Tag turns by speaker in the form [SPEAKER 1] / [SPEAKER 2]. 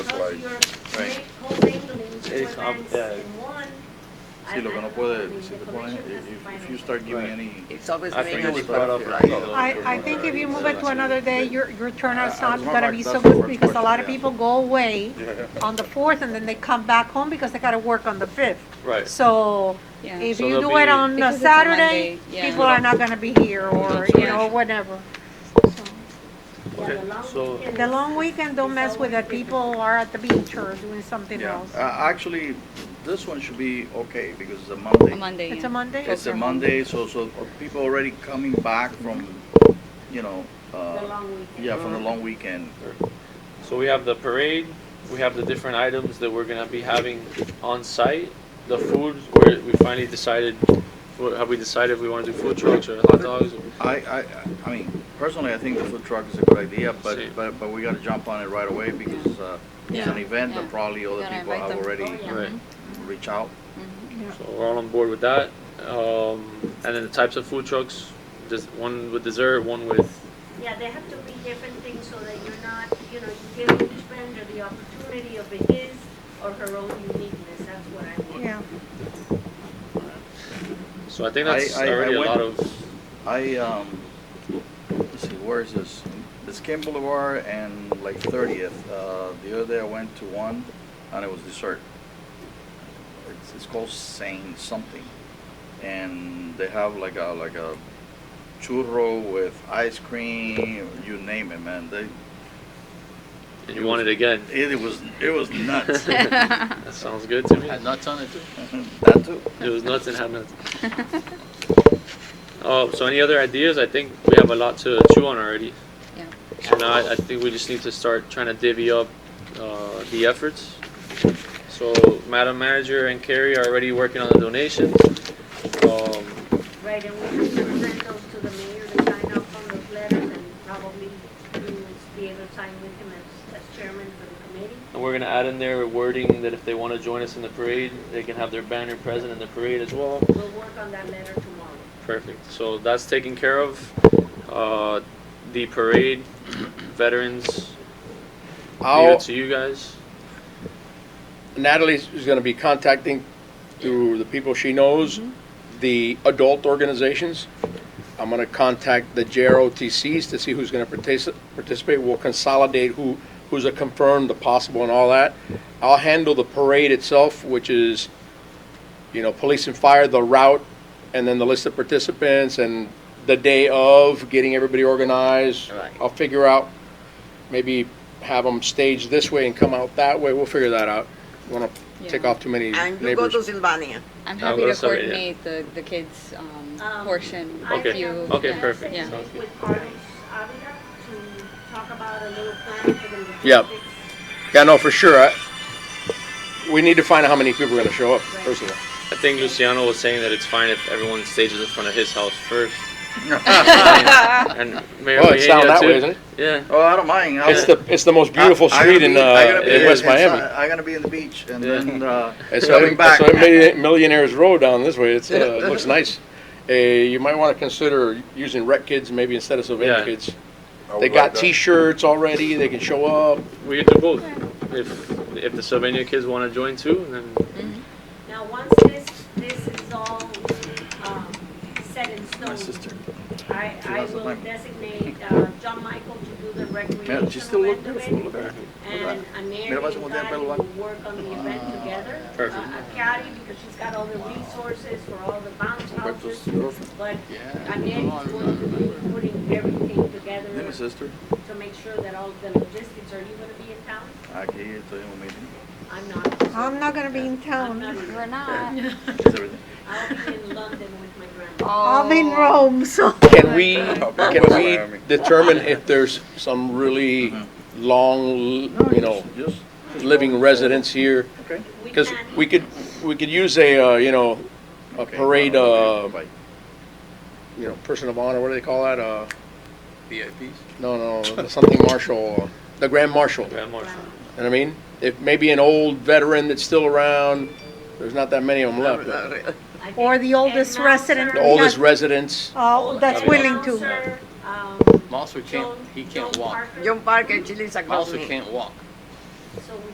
[SPEAKER 1] Right,
[SPEAKER 2] Your
[SPEAKER 1] right.
[SPEAKER 2] whole thing belongs to
[SPEAKER 1] It's up
[SPEAKER 2] one bank
[SPEAKER 1] there.
[SPEAKER 2] in one.
[SPEAKER 1] Sí, lo que no puede, si te pones,
[SPEAKER 2] Information has
[SPEAKER 1] if, if you
[SPEAKER 2] finance.
[SPEAKER 1] start giving
[SPEAKER 3] Right.
[SPEAKER 1] any.
[SPEAKER 4] It's always
[SPEAKER 3] I
[SPEAKER 4] been
[SPEAKER 3] think
[SPEAKER 4] an
[SPEAKER 3] it was brought up.
[SPEAKER 4] issue.
[SPEAKER 5] I, I think if you move it to another day, your, your turnout's
[SPEAKER 1] I- I
[SPEAKER 5] not
[SPEAKER 1] was
[SPEAKER 5] gonna
[SPEAKER 1] wondering
[SPEAKER 5] be
[SPEAKER 1] if
[SPEAKER 5] so
[SPEAKER 1] that's the
[SPEAKER 5] good
[SPEAKER 1] word
[SPEAKER 5] because a lot of
[SPEAKER 1] for it, yeah.
[SPEAKER 5] people go away
[SPEAKER 3] Yeah.
[SPEAKER 5] on the fourth and then they come back home because they gotta work on the fifth.
[SPEAKER 3] Right.
[SPEAKER 5] So
[SPEAKER 6] Yeah.
[SPEAKER 5] if
[SPEAKER 3] So
[SPEAKER 5] you
[SPEAKER 3] there'll
[SPEAKER 5] do it
[SPEAKER 3] be-
[SPEAKER 5] on
[SPEAKER 6] Because
[SPEAKER 5] a
[SPEAKER 6] it's a
[SPEAKER 5] Saturday,
[SPEAKER 6] Monday, yeah.
[SPEAKER 5] people are not gonna be here or,
[SPEAKER 3] That's
[SPEAKER 5] you know,
[SPEAKER 3] right.
[SPEAKER 5] whatever. So-
[SPEAKER 2] Yeah,
[SPEAKER 3] Okay,
[SPEAKER 2] the long
[SPEAKER 3] so-
[SPEAKER 2] weekend
[SPEAKER 5] The
[SPEAKER 2] is-
[SPEAKER 5] long weekend, don't mess with it. People are at the beach or doing something
[SPEAKER 1] Yeah,
[SPEAKER 5] else.
[SPEAKER 1] uh, actually, this one should be okay because it's a Monday.
[SPEAKER 6] Monday,
[SPEAKER 5] It's
[SPEAKER 6] yeah.
[SPEAKER 5] a Monday?
[SPEAKER 1] It's a Monday, so, so uh, people already coming back from, you know,
[SPEAKER 2] The
[SPEAKER 1] uh,
[SPEAKER 2] long weekend.
[SPEAKER 1] yeah,
[SPEAKER 3] Uh-huh.
[SPEAKER 1] from the long weekend.
[SPEAKER 3] So we have the parade, we have the different items that we're gonna be having on site, the food, where we finally decided, what- have we decided if we wanna do food trucks or hot dogs?
[SPEAKER 1] I, I, I mean, personally, I think the food truck is a good idea, but,
[SPEAKER 3] Sí.
[SPEAKER 1] but, but we gotta jump on it right away because, uh, it's an event and
[SPEAKER 6] Yeah.
[SPEAKER 1] probably other
[SPEAKER 6] Gotta
[SPEAKER 1] people
[SPEAKER 6] invite
[SPEAKER 1] have
[SPEAKER 6] them.
[SPEAKER 1] already
[SPEAKER 2] Oh, yeah.
[SPEAKER 3] Right,
[SPEAKER 1] reached out.
[SPEAKER 3] so we're all on board with that. Um, and then the types of food trucks, just one with dessert, one with
[SPEAKER 2] Yeah, there have to be different things so that you're not, you know, you give each vendor the opportunity of his or her own uniqueness, that's what I want.
[SPEAKER 5] Yeah.
[SPEAKER 3] So I think
[SPEAKER 1] I-
[SPEAKER 3] that's
[SPEAKER 1] I- I
[SPEAKER 3] already a
[SPEAKER 1] went-
[SPEAKER 3] lot of,
[SPEAKER 1] I, um, let's see, where is this? This Kim Boulevard and like 30th. Uh, the other day I went to one and it was dessert. It's, it's called Saint something. And they have like a, like a churro with ice cream, you name it, man. They,
[SPEAKER 3] and you want it again.
[SPEAKER 1] it, was, it was nuts.
[SPEAKER 3] That sounds good to me.
[SPEAKER 1] nuts on it too? That too.
[SPEAKER 3] It was nuts and had nuts. Oh, so any other ideas? I think we have a lot to chew on already.
[SPEAKER 6] Yeah.
[SPEAKER 3] So now I, I think we just need to start trying to divvy up, uh, the efforts. So Madam Manager and Carrie are already working on the donations. Um,
[SPEAKER 2] Right, and we have to present those to the mayor to sign off on those letters and probably you will be able to sign with him as, as chairman for the committee.
[SPEAKER 3] and we're gonna add in there wording that if they wanna join us in the parade, they can have their banner present in the parade as well.
[SPEAKER 2] We'll work on that letter tomorrow.
[SPEAKER 3] Perfect. So that's taken care of. Uh, the parade, veterans, leave
[SPEAKER 7] I'll,
[SPEAKER 3] it to you guys.
[SPEAKER 7] Natalie's is gonna be contacting through the people she knows, the adult organizations. I'm gonna contact the JROTCs to see who's gonna partici- participate. We'll consolidate who, who's a confirmed, the possible and all that. I'll handle the parade itself, which is, you know, police and fire, the route, and then the list of participants and the day of, getting everybody organized.
[SPEAKER 4] Right.
[SPEAKER 7] I'll figure out, maybe have them stage this way and come out that way. We'll figure that out. Wanna take
[SPEAKER 6] Yeah.
[SPEAKER 7] off too many
[SPEAKER 4] And you go
[SPEAKER 7] neighbors.
[SPEAKER 4] to Sylvania.
[SPEAKER 6] I'm
[SPEAKER 3] I'll
[SPEAKER 6] happy
[SPEAKER 3] go
[SPEAKER 6] to
[SPEAKER 3] to Saturday, Oh, yeah.
[SPEAKER 6] coordinate the, the kids' um,
[SPEAKER 2] Um,
[SPEAKER 6] portion
[SPEAKER 2] I
[SPEAKER 6] with
[SPEAKER 3] Okay.
[SPEAKER 6] you.
[SPEAKER 2] have-
[SPEAKER 3] Okay,
[SPEAKER 2] I have
[SPEAKER 3] perfect.
[SPEAKER 2] sent
[SPEAKER 6] Sounds
[SPEAKER 2] it with Carlos Avila to talk about a little plan for the
[SPEAKER 7] Yep.
[SPEAKER 2] logistics.
[SPEAKER 7] Yeah, no, for sure. I- We need to find out how many people are gonna show up, first of all.
[SPEAKER 3] I think Luciano was saying that it's fine if everyone stages in front of his house first. and Mayor
[SPEAKER 7] Well, it's down
[SPEAKER 3] Mejia,
[SPEAKER 7] that
[SPEAKER 3] too.
[SPEAKER 7] way, isn't it?
[SPEAKER 3] Yeah.
[SPEAKER 1] Oh, I don't mind. I-
[SPEAKER 7] It's the, it's the most beautiful
[SPEAKER 1] I- I gotta
[SPEAKER 7] street in,
[SPEAKER 1] be- I
[SPEAKER 7] uh,
[SPEAKER 1] gotta be
[SPEAKER 7] in West
[SPEAKER 1] in- inside-
[SPEAKER 7] Miami.
[SPEAKER 1] I gotta be in the beach and
[SPEAKER 3] Yeah.
[SPEAKER 1] then, uh,
[SPEAKER 7] It's
[SPEAKER 1] coming
[SPEAKER 7] on-
[SPEAKER 1] back.
[SPEAKER 7] it's on Millionaire- Millionaire's Road down this way. It's, uh, it looks nice. Uh, you might wanna consider using rec kids maybe instead of Sylvania
[SPEAKER 3] Yeah.
[SPEAKER 7] kids.
[SPEAKER 1] I
[SPEAKER 7] They
[SPEAKER 1] would
[SPEAKER 7] got
[SPEAKER 1] like that.
[SPEAKER 7] t-shirts already. They can show up.
[SPEAKER 3] We could do both. If if the Sylvania kids want to join too, then
[SPEAKER 2] Now, once this, this is all, um, set in
[SPEAKER 1] My
[SPEAKER 2] stone,
[SPEAKER 1] sister.
[SPEAKER 2] I, I
[SPEAKER 1] loves the
[SPEAKER 2] will
[SPEAKER 1] lemon.
[SPEAKER 2] designate, uh, John Michael to do the
[SPEAKER 1] Yeah, she still
[SPEAKER 2] recreational
[SPEAKER 1] look
[SPEAKER 2] end of
[SPEAKER 1] beautiful. Look
[SPEAKER 2] it.
[SPEAKER 1] at her. Look at
[SPEAKER 2] And Aneri
[SPEAKER 1] Mira, vas a
[SPEAKER 2] and
[SPEAKER 1] voltear el
[SPEAKER 2] Cari
[SPEAKER 1] pelo, va. Ah.
[SPEAKER 2] will work on the event together.
[SPEAKER 3] Perfect.
[SPEAKER 2] Uh, Cari, because she's got all the resources for all the bounce houses,
[SPEAKER 1] Roberto's girlfriend.
[SPEAKER 2] but
[SPEAKER 1] Yeah.
[SPEAKER 2] Aneri's going to be putting everything together
[SPEAKER 1] Dime, sister.
[SPEAKER 2] to make sure that all the logistics, are you gonna be in town?
[SPEAKER 1] Aquí estoy en un meeting.
[SPEAKER 2] I'm not.
[SPEAKER 5] I'm not gonna be in town.
[SPEAKER 6] We're not.
[SPEAKER 1] It's everything.
[SPEAKER 2] I'll be in London with my grandma.
[SPEAKER 5] I'm in
[SPEAKER 6] Oh.
[SPEAKER 5] Rome, so.
[SPEAKER 7] Can we,
[SPEAKER 1] Okay.
[SPEAKER 7] can we
[SPEAKER 1] Miami.
[SPEAKER 7] determine if there's some really
[SPEAKER 1] Mhm.
[SPEAKER 7] long,
[SPEAKER 1] Oh,
[SPEAKER 7] you know,
[SPEAKER 1] Just,
[SPEAKER 7] living residents here?
[SPEAKER 1] okay.
[SPEAKER 7] Because we could, we could use a, uh, you know, a
[SPEAKER 1] Okay.
[SPEAKER 7] parade, uh,
[SPEAKER 1] Bye.
[SPEAKER 7] you know, person of honor, what do they call that? Uh, No, no, something marshal, uh, the grand marshal, you know
[SPEAKER 3] Grand Marshal.
[SPEAKER 7] what I mean? If maybe an old veteran that's still around, there's not that many of them left. but
[SPEAKER 5] Or the oldest resident.
[SPEAKER 7] The oldest residents,
[SPEAKER 5] Oh, that's willing to.
[SPEAKER 2] to. um,
[SPEAKER 8] Mouser can't, he can't walk.
[SPEAKER 4] John Parker, Chile, Zagros.
[SPEAKER 8] Mouser can't walk.